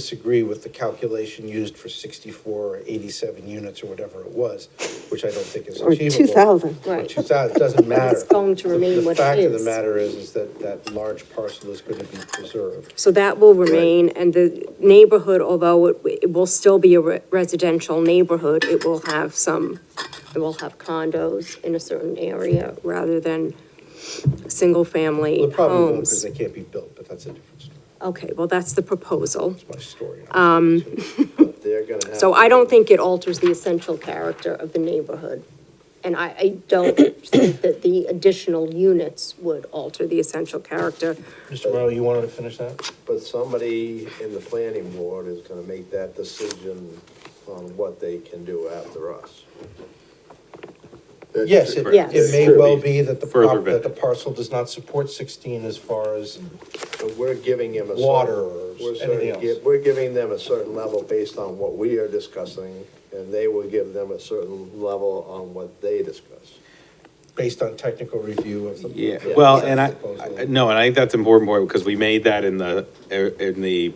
disagree with the calculation used for sixty-four or eighty-seven units or whatever it was, which I don't think is Or achievable. 2,000. Or Right. two thousand, it doesn't matter. It's going to The- remain what it The fact of is. the matter is, is that that large parcel is going to be preserved. So that will remain, and the neighborhood, although it, it will still be a re- residential neighborhood, it will have some, it will have condos in a certain area rather than Well, single-family it probably won't because homes. they can't be built, but that's a different story, Okay, well, that's the proposal. my story. Um. They're going to have. So I don't think it alters the essential character of the neighborhood. And I, I don't think that the additional units would alter the essential character. Mr. Morrow, you wanted to finish that? But somebody in the planning board is gonna make that decision on what they can do after us. Yes, it, Yes. it may well be that the, Further prop- that vetted. the parcel does not support sixteen as far as, But we're giving him a. certain- Water or we're anything certain- else. gi- We're giving them a certain level based on what we are discussing, and they will give them a certain level on what they discuss. based on technical review of the. Yeah, the well, project and I, proposal. I- no, and I think that's important, boy, because we made that in the, in the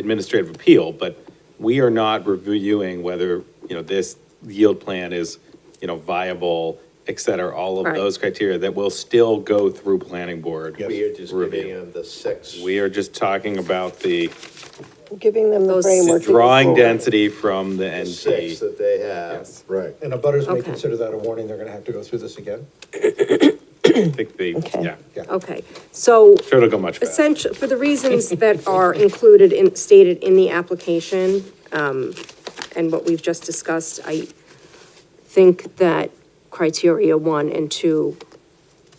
administrative appeal, but we are not reviewing whether, you know, this yield plan is, you know, viable, et cetera, all of Right. those criteria that will still go through planning board. Yes. We are just giving Review. them the six. We are just talking about the Giving them the Those- framework. to go drawing forward. density from the the Six NP. that they have. Yes. Right. And the butters may Okay. consider that a warning, they're going to have to go through this again? I think they, Okay. yeah, Yeah. Okay, so sure it'll go much faster. essential, for the reasons that are included in, stated in the application, um, and what we've just discussed, I think that criteria one and two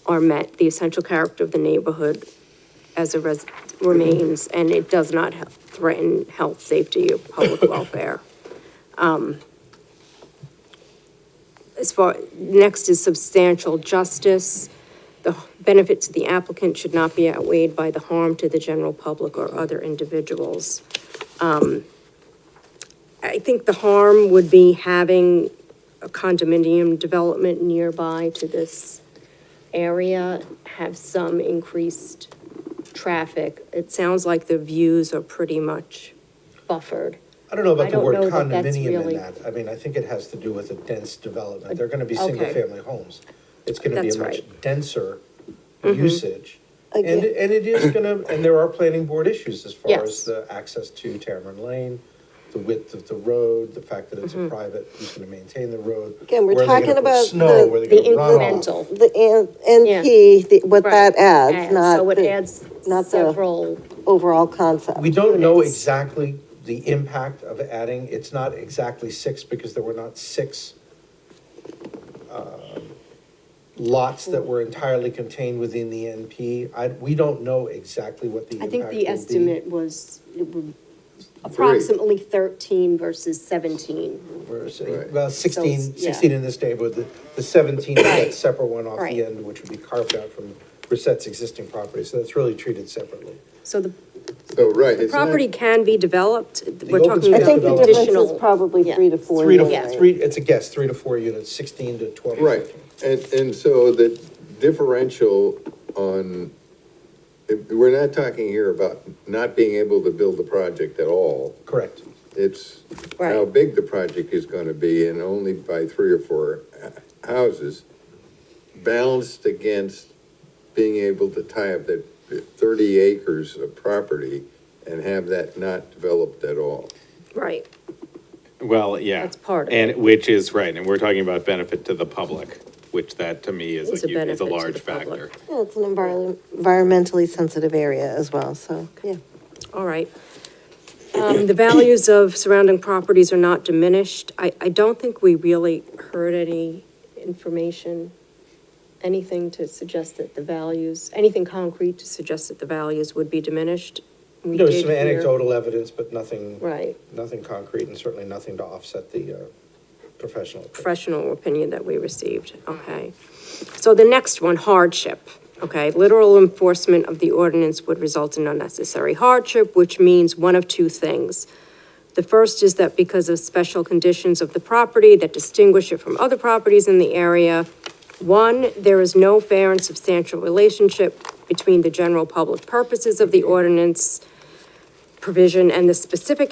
are met, the essential character of the neighborhood as a res, remains, and it does not he- threaten health, safety, or public welfare. Um, As far, next is substantial justice. The benefit to the applicant should not be outweighed by the harm to the general public or other individuals. Um, I think the harm would be having a condominium development nearby to this area, have some increased traffic. It sounds like the views are pretty much buffered. I don't know I about the don't word know that that's condominium really- in that. I mean, I think it has to do with a dense development. They're gonna be Okay. single-family homes. It's gonna be That's a much right. Mm-hmm. denser usage. And, Again. it- and it is gonna, and there are planning board issues as far Yes. as the access to Tamron Lane, the width of the road, the fact that it's Mm-hmm. a private, who's gonna maintain the road? Again, we're where are they gonna talking put about Snow, the- where are they The gonna runoff? incremental. The N- NP, the- what Right. that adds, not So it the adds not the- several, overall concept. We don't know units. exactly the impact of adding, it's not exactly six, because there were not six um, lots that were entirely contained within the NP. I, we don't know exactly what the I impact will be. think the estimate was it would- approximately 13 versus 17. We're saying, Right. Well, So sixteen, it's- yeah. sixteen in this neighborhood, the, the seventeen, is that Right. separate one off Right. the end, which would be carved out from Brissette's existing property, so that's really treated separately. So the So, right. property can be developed, we're open talking space I about think the development- difference additional. is probably yeah. three to four. Three units. to, three, it's a guess, three to four units, sixteen to twelve. Right, and, and so the differential on, if- we're not talking here about not being able to build the project at all. Correct. It's how Right. big the project is gonna be and only by three or four uh, houses, balanced against being able to tie up that thirty acres of property and have that not developed at all. Right, Well, yeah. That's part of And, which is, right, and we're talking about benefit to the public, which that to me is It's a, a hu- is benefit a to the large public. factor. Yeah, it's an envir- environmentally sensitive area as well, so, yeah. all right. Um, The values of surrounding properties are not diminished. I, I don't think we really heard any information, anything to suggest that the values, anything concrete to suggest that the values would be diminished. We There was did some hear- anecdotal evidence, but nothing. Right. Nothing concrete and certainly nothing to offset the uh, professional. opinion. professional opinion that we received, okay? So the next one, hardship, okay? Literal enforcement of the ordinance would result in unnecessary hardship, which means one of two things. The first is that because of special conditions of the property that distinguish it from other properties in the area, one, there is no fair and substantial relationship between the general public purposes of the ordinance provision and the specific